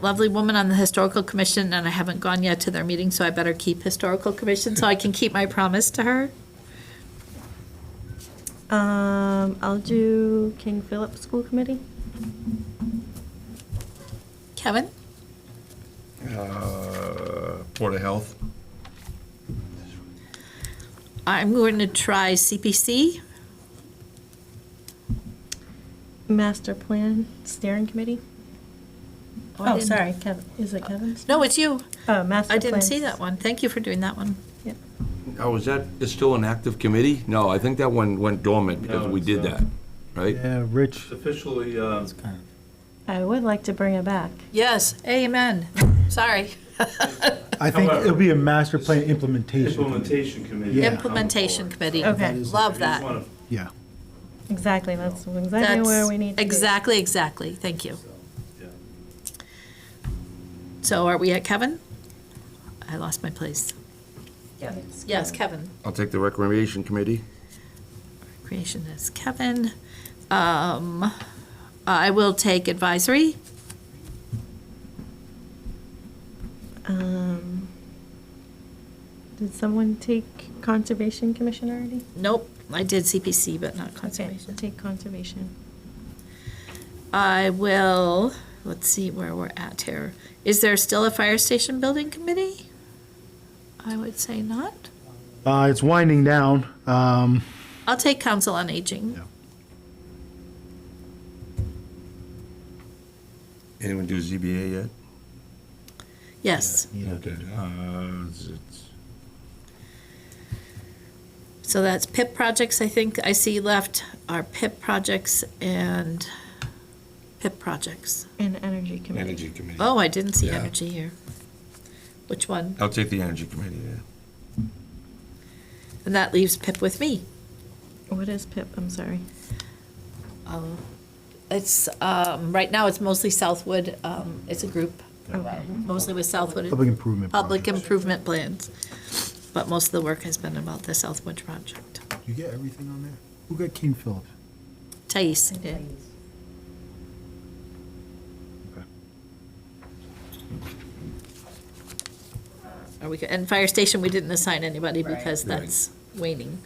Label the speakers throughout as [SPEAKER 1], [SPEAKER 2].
[SPEAKER 1] lovely woman on the Historical Commission, and I haven't gone yet to their meeting, so I better keep Historical Commission so I can keep my promise to her.
[SPEAKER 2] Um, I'll do King Philip School Committee.
[SPEAKER 1] Kevin?
[SPEAKER 3] Uh, Board of Health,
[SPEAKER 1] I'm going to try CPC.
[SPEAKER 2] Master Plan Steering Committee.
[SPEAKER 1] I
[SPEAKER 2] Oh,
[SPEAKER 1] didn't-
[SPEAKER 2] sorry, Kevin, is it Kevin's?
[SPEAKER 1] No, it's you.
[SPEAKER 2] Oh, Master
[SPEAKER 1] I didn't
[SPEAKER 2] Plan.
[SPEAKER 1] see that one. Thank you for doing that one.
[SPEAKER 2] Yep.
[SPEAKER 4] Oh, is that, is still an active committee? No, I think that one went dormant because
[SPEAKER 5] No,
[SPEAKER 4] we
[SPEAKER 5] it's,
[SPEAKER 4] did
[SPEAKER 5] uh,
[SPEAKER 4] that, right?
[SPEAKER 6] Yeah, Rich,
[SPEAKER 5] It's officially, um,
[SPEAKER 2] I would like to bring it back.
[SPEAKER 1] Yes, amen. Sorry.
[SPEAKER 6] I think
[SPEAKER 5] However,
[SPEAKER 6] it'll be a master plan implementation.
[SPEAKER 5] implementation committee.
[SPEAKER 6] Yeah.
[SPEAKER 1] Implementation committee.
[SPEAKER 2] Okay,
[SPEAKER 1] Love that.
[SPEAKER 6] Yeah.
[SPEAKER 2] exactly, that's exactly
[SPEAKER 1] That's
[SPEAKER 2] where we need to be.
[SPEAKER 1] Exactly, exactly. Thank you.
[SPEAKER 5] yeah.
[SPEAKER 1] So are we at Kevin? I lost my place. Yes. Yes, Kevin.
[SPEAKER 4] I'll take the Recreation Committee.
[SPEAKER 1] Creation is Kevin. Um, I will take advisory.
[SPEAKER 2] Um, Did someone take Conservation Commission already?
[SPEAKER 1] Nope, I did CPC, but not
[SPEAKER 2] Okay,
[SPEAKER 1] conservation.
[SPEAKER 2] Take Conservation.
[SPEAKER 1] I will, let's see where we're at here. Is there still a fire station building committee? I would say not.
[SPEAKER 6] Uh, it's winding down. Um,
[SPEAKER 1] I'll take council on aging.
[SPEAKER 6] Yeah.
[SPEAKER 4] Anyone do ZBA yet?
[SPEAKER 1] Yes,
[SPEAKER 4] Okay.
[SPEAKER 3] uh, it's- it's-
[SPEAKER 1] so that's PIP projects, I think I see left are PIP projects and PIP projects.
[SPEAKER 2] And Energy Committee.
[SPEAKER 3] Energy Committee.
[SPEAKER 1] Oh, I didn't see
[SPEAKER 3] Yeah.
[SPEAKER 1] energy here. Which one?
[SPEAKER 4] I'll take the Energy Committee, yeah.
[SPEAKER 1] And that leaves PIP with me.
[SPEAKER 2] What is PIP? I'm sorry.
[SPEAKER 1] Um, It's, um, right now, it's mostly Southwood, um, it's a group,
[SPEAKER 2] Okay.
[SPEAKER 1] mostly with Southwood.
[SPEAKER 6] Public improvement
[SPEAKER 1] Public
[SPEAKER 6] projects.
[SPEAKER 1] improvement plans, but most of the work has been about the Southwood project.
[SPEAKER 6] You get everything on there? Who got King Philip?
[SPEAKER 1] Thais did. Are we, go- and fire station, we didn't assign anybody because
[SPEAKER 4] Right.
[SPEAKER 1] that's waning.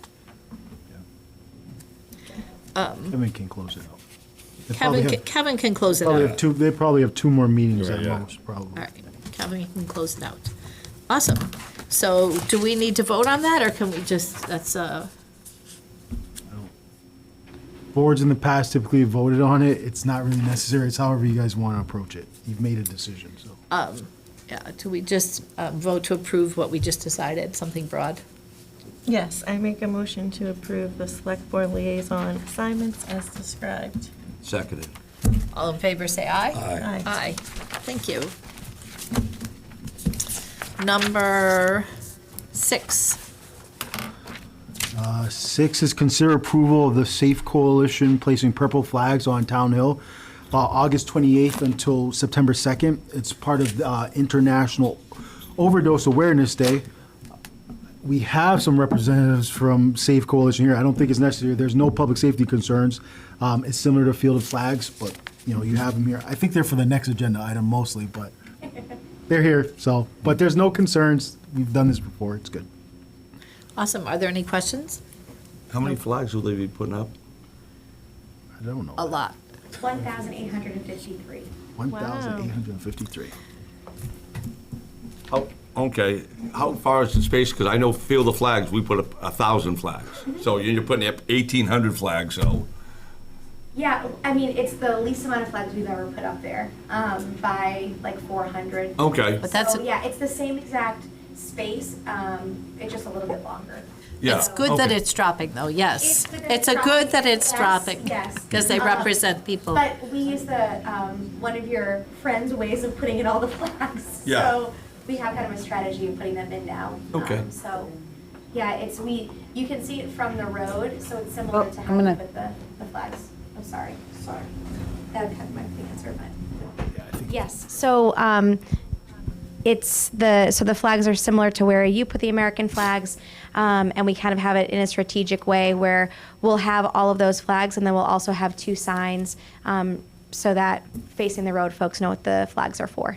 [SPEAKER 6] Kevin can close it out. They probably
[SPEAKER 1] Kevin,
[SPEAKER 6] have-
[SPEAKER 1] ca- Kevin can close it out.
[SPEAKER 6] Probably have two, they probably have two more meetings at
[SPEAKER 3] Yeah.
[SPEAKER 6] most, probably.
[SPEAKER 1] All right, Kevin, you can close it out. Awesome. So do we need to vote on that, or can we just, that's, uh,
[SPEAKER 6] Boards in the past typically have voted on it. It's not really necessary. It's however you guys want to approach it. You've made a decision, so.
[SPEAKER 1] yeah, do we just uh, vote to approve what we just decided, something broad?
[SPEAKER 2] Yes, I make a motion to approve the Select Board Liaison assignments as described.
[SPEAKER 4] Seconded.
[SPEAKER 1] All in favor, say aye.
[SPEAKER 2] Aye.
[SPEAKER 1] Aye, thank you. Number six,
[SPEAKER 6] Uh, Six is consider approval of the Safe Coalition placing purple flags on Town Hill, uh, August 28th until September 2nd. It's part of uh, International Overdose Awareness Day. We have some representatives from Safe Coalition here. I don't think it's necessary. There's no public safety concerns. Um, It's similar to Field of Flags, but, you know, you have them here. I think they're for the next agenda item mostly, but they're here, so. But there's no concerns. We've done this before. It's good.
[SPEAKER 1] awesome, are there any questions?
[SPEAKER 4] How many flags will they be putting up?
[SPEAKER 6] I don't know.
[SPEAKER 1] A lot.
[SPEAKER 7] 1,853.
[SPEAKER 6] 1,853.
[SPEAKER 4] How, okay, how far is the space? Because I know Field of Flags, we put up a thousand flags. So you're putting up eighteen hundred flags, so.
[SPEAKER 7] Yeah, I mean, it's the least amount of flags we've ever put up there um, by like 400.
[SPEAKER 4] Okay,
[SPEAKER 1] But that's-
[SPEAKER 7] So, yeah, it's the same exact space, um, it's just a little bit longer.
[SPEAKER 4] yeah.
[SPEAKER 1] It's good that
[SPEAKER 4] okay.
[SPEAKER 1] it's dropping, though, yes.
[SPEAKER 7] It's good that
[SPEAKER 1] It's
[SPEAKER 7] it's
[SPEAKER 1] a good
[SPEAKER 7] dropping.
[SPEAKER 1] that it's
[SPEAKER 7] Yes,
[SPEAKER 1] dropping.
[SPEAKER 7] yes.
[SPEAKER 1] Because they
[SPEAKER 7] Um,
[SPEAKER 1] represent people.
[SPEAKER 7] But we use the, um, one of your friends' ways of putting in all the flags.
[SPEAKER 4] Yeah.
[SPEAKER 7] So we have kind of a strategy of putting them in now.
[SPEAKER 4] Okay.
[SPEAKER 7] Um, So, yeah, it's, we, you can see it from the road, so it's similar
[SPEAKER 8] Oh,
[SPEAKER 7] to
[SPEAKER 8] I'm
[SPEAKER 7] how we
[SPEAKER 8] gonna-
[SPEAKER 7] put the, the flags. I'm sorry, sorry. That kind of might be answered, but. Yes,
[SPEAKER 9] So um, it's the so the flags are similar to where you put the American flags, um, and we kind of have it in a strategic way where we'll have all of those flags, and then we'll also have two signs um,
[SPEAKER 7] so that facing the road folks know what the flags are for.